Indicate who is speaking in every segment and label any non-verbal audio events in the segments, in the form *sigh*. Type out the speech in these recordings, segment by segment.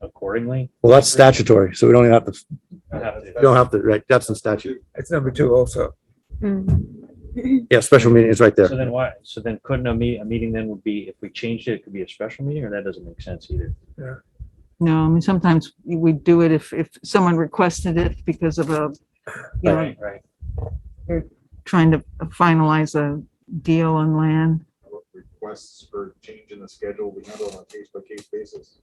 Speaker 1: accordingly.
Speaker 2: Well, that's statutory, so we don't even have to, we
Speaker 1: I have to-
Speaker 2: don't have to, right, that's in statute.
Speaker 3: It's number two also.
Speaker 2: Yeah, special meeting is right
Speaker 1: So
Speaker 2: there.
Speaker 1: then why, so then couldn't a meet, a meeting then would be, if we changed it, it could be a special meeting, or that doesn't make sense either?
Speaker 4: No, I mean, sometimes we do it if, if someone requested it because of a, you know,
Speaker 1: Right, right.
Speaker 4: trying to finalize a deal on land.
Speaker 5: what requests for change in the schedule, we handle on a case-by-case basis.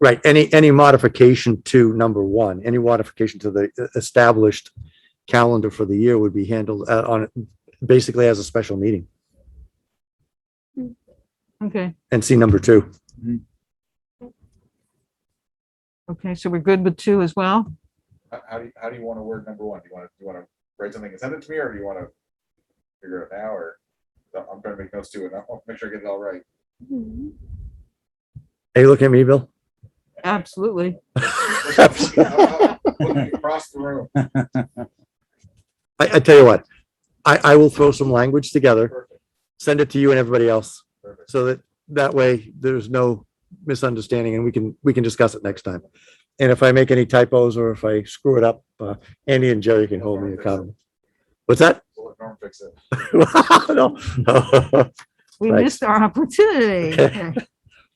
Speaker 2: Right, any, any modification to number one, any modification to the e-, established calendar for the year would be handled uh, on, basically as a special meeting.
Speaker 4: Okay,
Speaker 2: And see number two.
Speaker 4: okay, so we're good with two as well?
Speaker 5: How, how do you, how do you want to word number one? Do you want to, do you want to write something and send it to me, or do you want to figure it out now, or? I'm trying to make notes too, and I want to make sure I get it all right.
Speaker 2: Are you looking at me, Bill?
Speaker 4: Absolutely.
Speaker 2: I,
Speaker 5: Looking *laughs* Across the room.
Speaker 2: I tell you what, I, I will throw some language together,
Speaker 5: Perfect,
Speaker 2: send it to you and everybody else,
Speaker 5: perfect.
Speaker 2: so that, that way there's no misunderstanding and we can, we can discuss it next time. And if I make any typos or if I screw it up, uh, Andy and Jerry can hold me accountable. What's that? *laughs*
Speaker 5: We'll let Norm fix it.
Speaker 2: No. *laughs*
Speaker 4: We
Speaker 2: Right.
Speaker 4: missed our opportunity.
Speaker 2: Okay.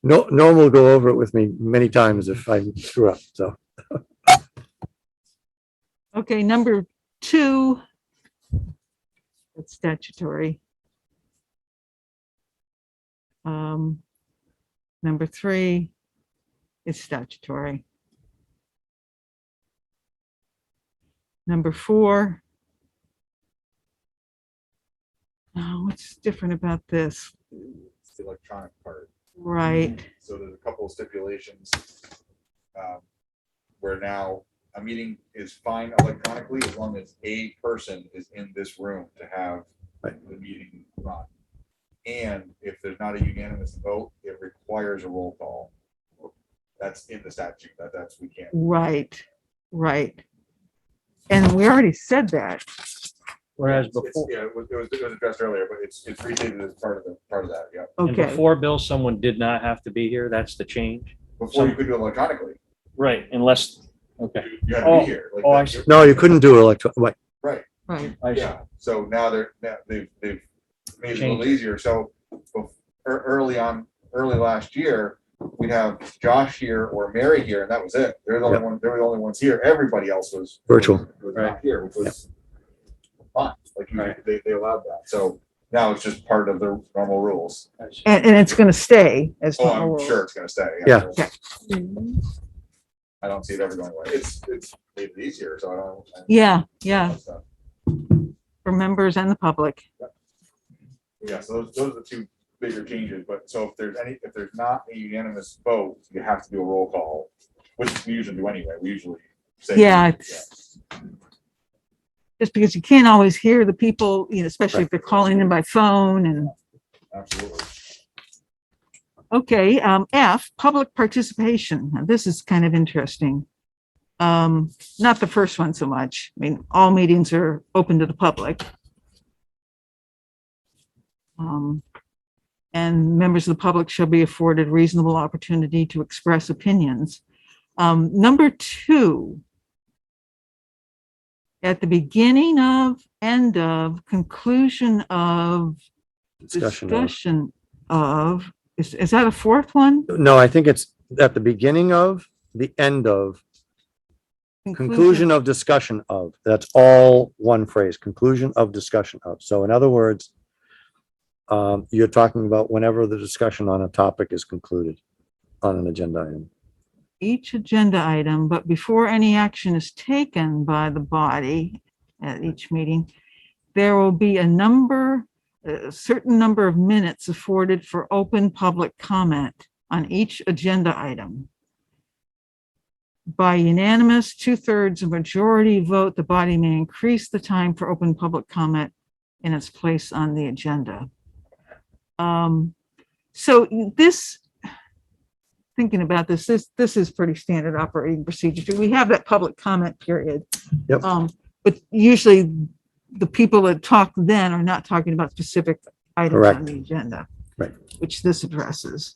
Speaker 2: No, Norm will go over it with me many times if I screw up, so.
Speaker 4: Okay, number two. It's statutory. Um, number three is statutory. Number four. Oh, what's different about this?
Speaker 5: It's the electronic part.
Speaker 4: Right,
Speaker 5: So there's a couple of stipulations. um, Where now a meeting is fine electronically as long as a person is in this room to have
Speaker 2: Right.
Speaker 5: the meeting run. And if there's not a unanimous vote, it requires a roll call. That's in the statute. That, that's, we can't.
Speaker 4: right, right. And we already said that.
Speaker 1: Whereas
Speaker 5: It's-
Speaker 1: before,
Speaker 5: Yeah, it was, it was it was addressed earlier, but it's, it's restated as part of the, part of that, yeah.
Speaker 1: and
Speaker 4: Okay,
Speaker 1: before, Bill, someone did not have to be here, that's the change?
Speaker 5: Before you could do it electronically,
Speaker 1: Right, unless, okay,
Speaker 5: you you had to
Speaker 1: Oh,
Speaker 5: be here. like
Speaker 1: oh, I
Speaker 5: that-
Speaker 1: see.
Speaker 2: No, you couldn't do electro, wait,
Speaker 4: right,
Speaker 1: I see.
Speaker 5: Yeah, so now they're, now they've, they've made it a little
Speaker 1: Changed it.
Speaker 5: easier, so bef- ear- early on, early last year, we'd have Josh here or Mary here, and that was it. They're the only
Speaker 2: Yep.
Speaker 5: one, they're the only ones here, everybody else was.
Speaker 2: Virtual.
Speaker 5: was- Was
Speaker 1: Right.
Speaker 5: not here, which was fine, like, you-
Speaker 1: Right.
Speaker 5: they, they allowed that, so now it's just part of the normal rules.
Speaker 1: I see.
Speaker 4: and, and it's gonna stay as.
Speaker 5: Oh,
Speaker 4: normal
Speaker 5: I'm
Speaker 4: rules.
Speaker 5: sure it's gonna stay.
Speaker 2: Yeah.
Speaker 4: Yeah.
Speaker 5: I don't see it ever going away, it's, it's made it easier, so I don't. I don't-
Speaker 4: Yeah, yeah,
Speaker 5: that's not-
Speaker 4: for members and the public.
Speaker 5: Yeah, so those, those are the two bigger changes, but so if there's any, if there's not a unanimous vote, you have to do a roll call, which we usually do anyway, we usually say.
Speaker 4: Yeah, it's just because you can't always hear the people, you know, especially if they're calling in by phone and,
Speaker 5: Absolutely.
Speaker 4: okay, um, F, public participation. Now, This is kind of interesting. Um, not the first one so much. I mean, all meetings are open to the public. Um, and members of the public shall be afforded reasonable opportunity to express opinions. Um, number two, at the beginning of, end of, conclusion of,
Speaker 2: discussion. of-
Speaker 4: discussion of, is, is that a fourth one?
Speaker 2: No, I think it's at the beginning of, the end of, conclusion of discussion of. That's all one phrase, conclusion of discussion of. So in other words, um, you're talking about whenever the discussion on a topic is concluded on an agenda item.
Speaker 4: each agenda item, but before any action is taken by the body at each meeting, there will be a number, a certain number of minutes afforded for open public comment on each agenda item. By unanimous two-thirds of majority vote, the body may increase the time for open public comment in its place on the agenda. Um, so this, thinking about this, this, this is pretty standard operating procedure. We have that public comment period.
Speaker 2: Yep.
Speaker 4: Um, but usually the people that talk then are not talking about specific items on
Speaker 2: Correct.
Speaker 4: the agenda.
Speaker 2: Right.
Speaker 4: Which this addresses.